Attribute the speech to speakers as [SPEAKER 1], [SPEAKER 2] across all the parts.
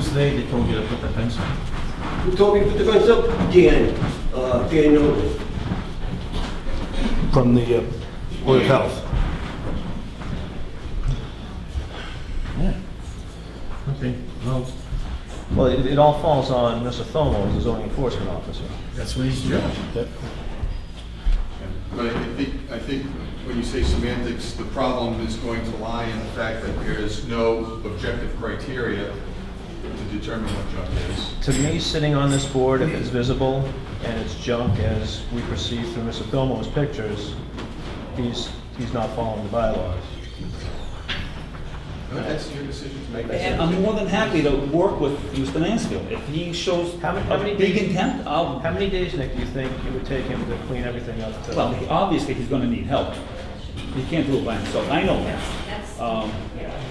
[SPEAKER 1] today, they told you to put the fence on.
[SPEAKER 2] Who told me to put the fence up? Dan, uh, Dan Nolan.
[SPEAKER 3] from the uh, Board of Health.
[SPEAKER 1] Okay, well. Well, it, it all falls on Mr. Thomo, the zoning enforcement officer.
[SPEAKER 4] That's what he's doing.
[SPEAKER 5] But I I think, I think when you say semantics, the problem is going to lie in the fact that there is no objective criteria to determine what junk is.
[SPEAKER 1] To me, sitting on this board, if it's visible and it's junk as we perceive through Mr. Thomo's pictures, he's, he's not following the bylaws.
[SPEAKER 5] But That's your decision to make.
[SPEAKER 6] And I'm more than happy to work with Mr. Mansfield. If he shows
[SPEAKER 1] How many- how many
[SPEAKER 6] a big
[SPEAKER 1] days-
[SPEAKER 6] intent, I'll,
[SPEAKER 1] How many days, Nick, do you think it would take him to clean everything up to?
[SPEAKER 6] well, he- obviously, he's gonna need help. He can't do it by himself, I know that. Um,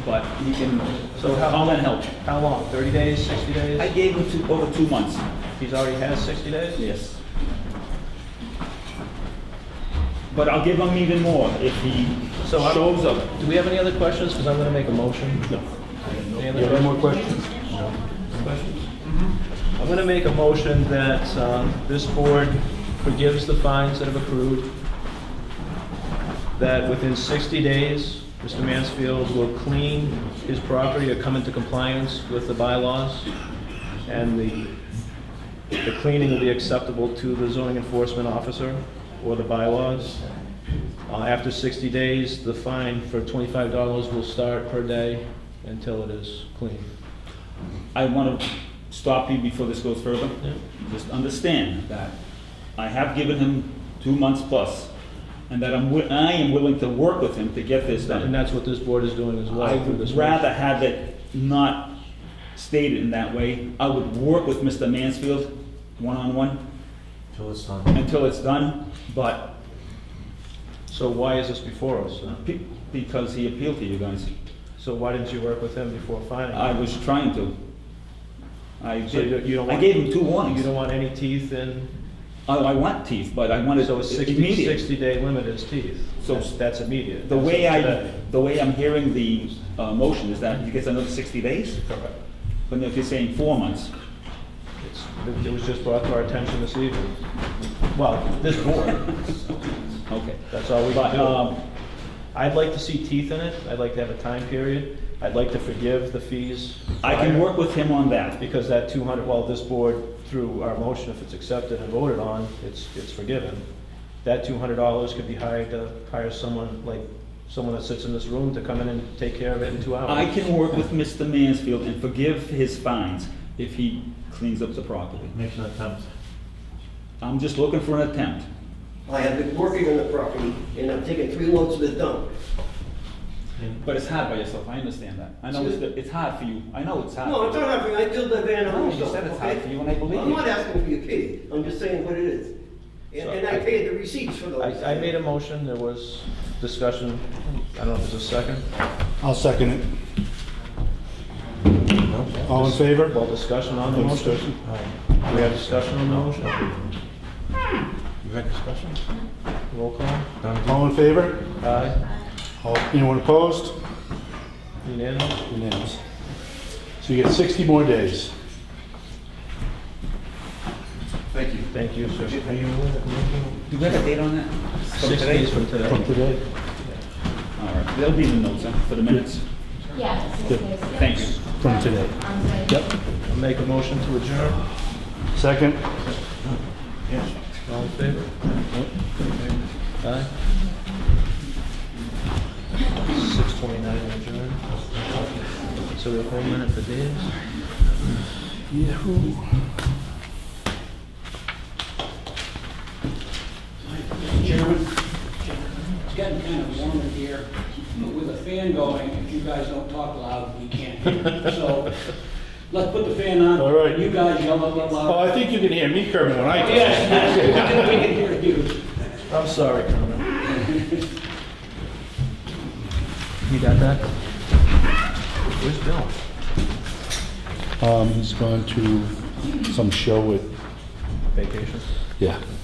[SPEAKER 6] But he can, so
[SPEAKER 1] So how-
[SPEAKER 6] I'll then help.
[SPEAKER 1] How long, 30 days, 60
[SPEAKER 6] I
[SPEAKER 1] days?
[SPEAKER 6] gave him two, over two months.
[SPEAKER 1] He's already had 60 days?
[SPEAKER 6] Yes. But I'll give him even more if he
[SPEAKER 1] So I'm-
[SPEAKER 6] shows up.
[SPEAKER 1] Do we have any other questions? Because I'm going to make a motion.
[SPEAKER 6] No.
[SPEAKER 1] Any other
[SPEAKER 3] You have any
[SPEAKER 1] questions? Mm-hmm.
[SPEAKER 3] more questions?
[SPEAKER 1] I'm going to make a motion that um, this board forgives the fines that have accrued, that within 60 days, Mr. Mansfield will clean his property or come into compliance with the bylaws, and the the cleaning will be acceptable to the zoning enforcement officer or the bylaws. Uh, After 60 days, the fine for $25 will start per day until it is clean.
[SPEAKER 6] I want to stop you before this goes further. Just understand that I have given him two months plus, and that I'm, wi- I am willing to work with him to get this
[SPEAKER 1] And
[SPEAKER 6] done.
[SPEAKER 1] that's what this board is doing as well.
[SPEAKER 6] I
[SPEAKER 1] through
[SPEAKER 6] would
[SPEAKER 1] this motion.
[SPEAKER 6] rather have it not stated in that way. I would work with Mr. Mansfield, one-on-one,
[SPEAKER 4] Till it's done.
[SPEAKER 6] until it's done, but
[SPEAKER 1] So why is this before us? then?
[SPEAKER 6] pe- because he appealed to you guys.
[SPEAKER 1] So why didn't you work with him before finding?
[SPEAKER 6] I
[SPEAKER 1] him?
[SPEAKER 6] was trying to. I
[SPEAKER 1] So you don't- you
[SPEAKER 6] did,
[SPEAKER 1] don't
[SPEAKER 6] I
[SPEAKER 1] want-
[SPEAKER 6] gave him two
[SPEAKER 1] You
[SPEAKER 6] warnings.
[SPEAKER 1] don't want any teeth in,
[SPEAKER 6] I, I want teeth, but I wanted
[SPEAKER 1] so a
[SPEAKER 6] it
[SPEAKER 1] 60,
[SPEAKER 6] immediate.
[SPEAKER 1] 60 day limit is teeth.
[SPEAKER 6] So-
[SPEAKER 1] That's- That's immediate.
[SPEAKER 6] The
[SPEAKER 1] That's
[SPEAKER 6] way I,
[SPEAKER 1] today.
[SPEAKER 6] the way I'm hearing the uh, motion is that he gets another 60 days? Correct. But if you're saying four months,
[SPEAKER 1] It's- it- It was just brought to our attention this evening. Well, this board,
[SPEAKER 6] okay.
[SPEAKER 1] that's all we
[SPEAKER 6] But,
[SPEAKER 1] can do.
[SPEAKER 6] um,
[SPEAKER 1] I'd like to see teeth in it. I'd like to have a time period. I'd like to forgive the fees.
[SPEAKER 6] I can
[SPEAKER 1] prior.
[SPEAKER 6] work with him on that.
[SPEAKER 1] Because that 200, well, this board, through our motion, if it's accepted and voted on, it's, it's forgiven. That $200 could be hired to hire someone, like, someone that sits in this room to come in and take care of it in two hours.
[SPEAKER 6] I can work with Mr. Mansfield and forgive his fines if he cleans up the property.
[SPEAKER 4] Make an attempt.
[SPEAKER 6] I'm just looking for an attempt.
[SPEAKER 2] I have been working on the property, and I'm taking three loads of the dump.
[SPEAKER 6] But it's hard by yourself, I understand that. I know it's, it's hard for you, I know it's hard.
[SPEAKER 2] No, I'm not having, I killed that van a
[SPEAKER 6] No,
[SPEAKER 2] home.
[SPEAKER 6] you said it's hard for you, and I believe
[SPEAKER 2] I'm
[SPEAKER 6] you.
[SPEAKER 2] not asking for your pity, I'm just saying what it is. And, and I paid the receipts for those.
[SPEAKER 1] I, I made a motion, there was discussion, I don't know if there's a second.
[SPEAKER 3] I'll second it. All in favor?
[SPEAKER 1] Well, discussion on the motion. We have discussion on the motion,
[SPEAKER 4] You had discussion?
[SPEAKER 1] roll call.
[SPEAKER 3] All in favor?
[SPEAKER 1] Aye,
[SPEAKER 3] All- Anyone opposed?
[SPEAKER 1] unanimous.
[SPEAKER 3] Unanimous. So you get 60 more days.
[SPEAKER 5] Thank you.
[SPEAKER 1] Thank you, sir.
[SPEAKER 4] Are you looking?
[SPEAKER 6] Do we have a date on that? From
[SPEAKER 1] Six
[SPEAKER 6] today?
[SPEAKER 1] days from
[SPEAKER 3] From
[SPEAKER 1] today.
[SPEAKER 3] today.
[SPEAKER 6] All right, that'll be in the notes, huh, for the minutes.
[SPEAKER 7] Yeah.
[SPEAKER 3] Yep.
[SPEAKER 6] Thank you.
[SPEAKER 3] From today. Yep.
[SPEAKER 1] I'll Make a motion to adjourn,
[SPEAKER 3] Second?
[SPEAKER 1] all in favor? Aye. 6:29 adjourn. So we have one minute for Dave's.
[SPEAKER 3] Yahoo.
[SPEAKER 8] Chairman, it's getting kind of warm in here, but with the fan going, if you guys don't talk loud, we can't hear. So let's put the fan on.
[SPEAKER 3] All right.
[SPEAKER 8] You guys yell a little
[SPEAKER 3] Oh,
[SPEAKER 8] loud.
[SPEAKER 3] I think you can hear me, Kermit, when I talk.
[SPEAKER 8] Yes, yes, we can hear you.
[SPEAKER 1] I'm sorry, Carmen. You got that? Where's Bill?
[SPEAKER 3] Um, he's gone to some show with,
[SPEAKER 1] Vacation.
[SPEAKER 3] yeah.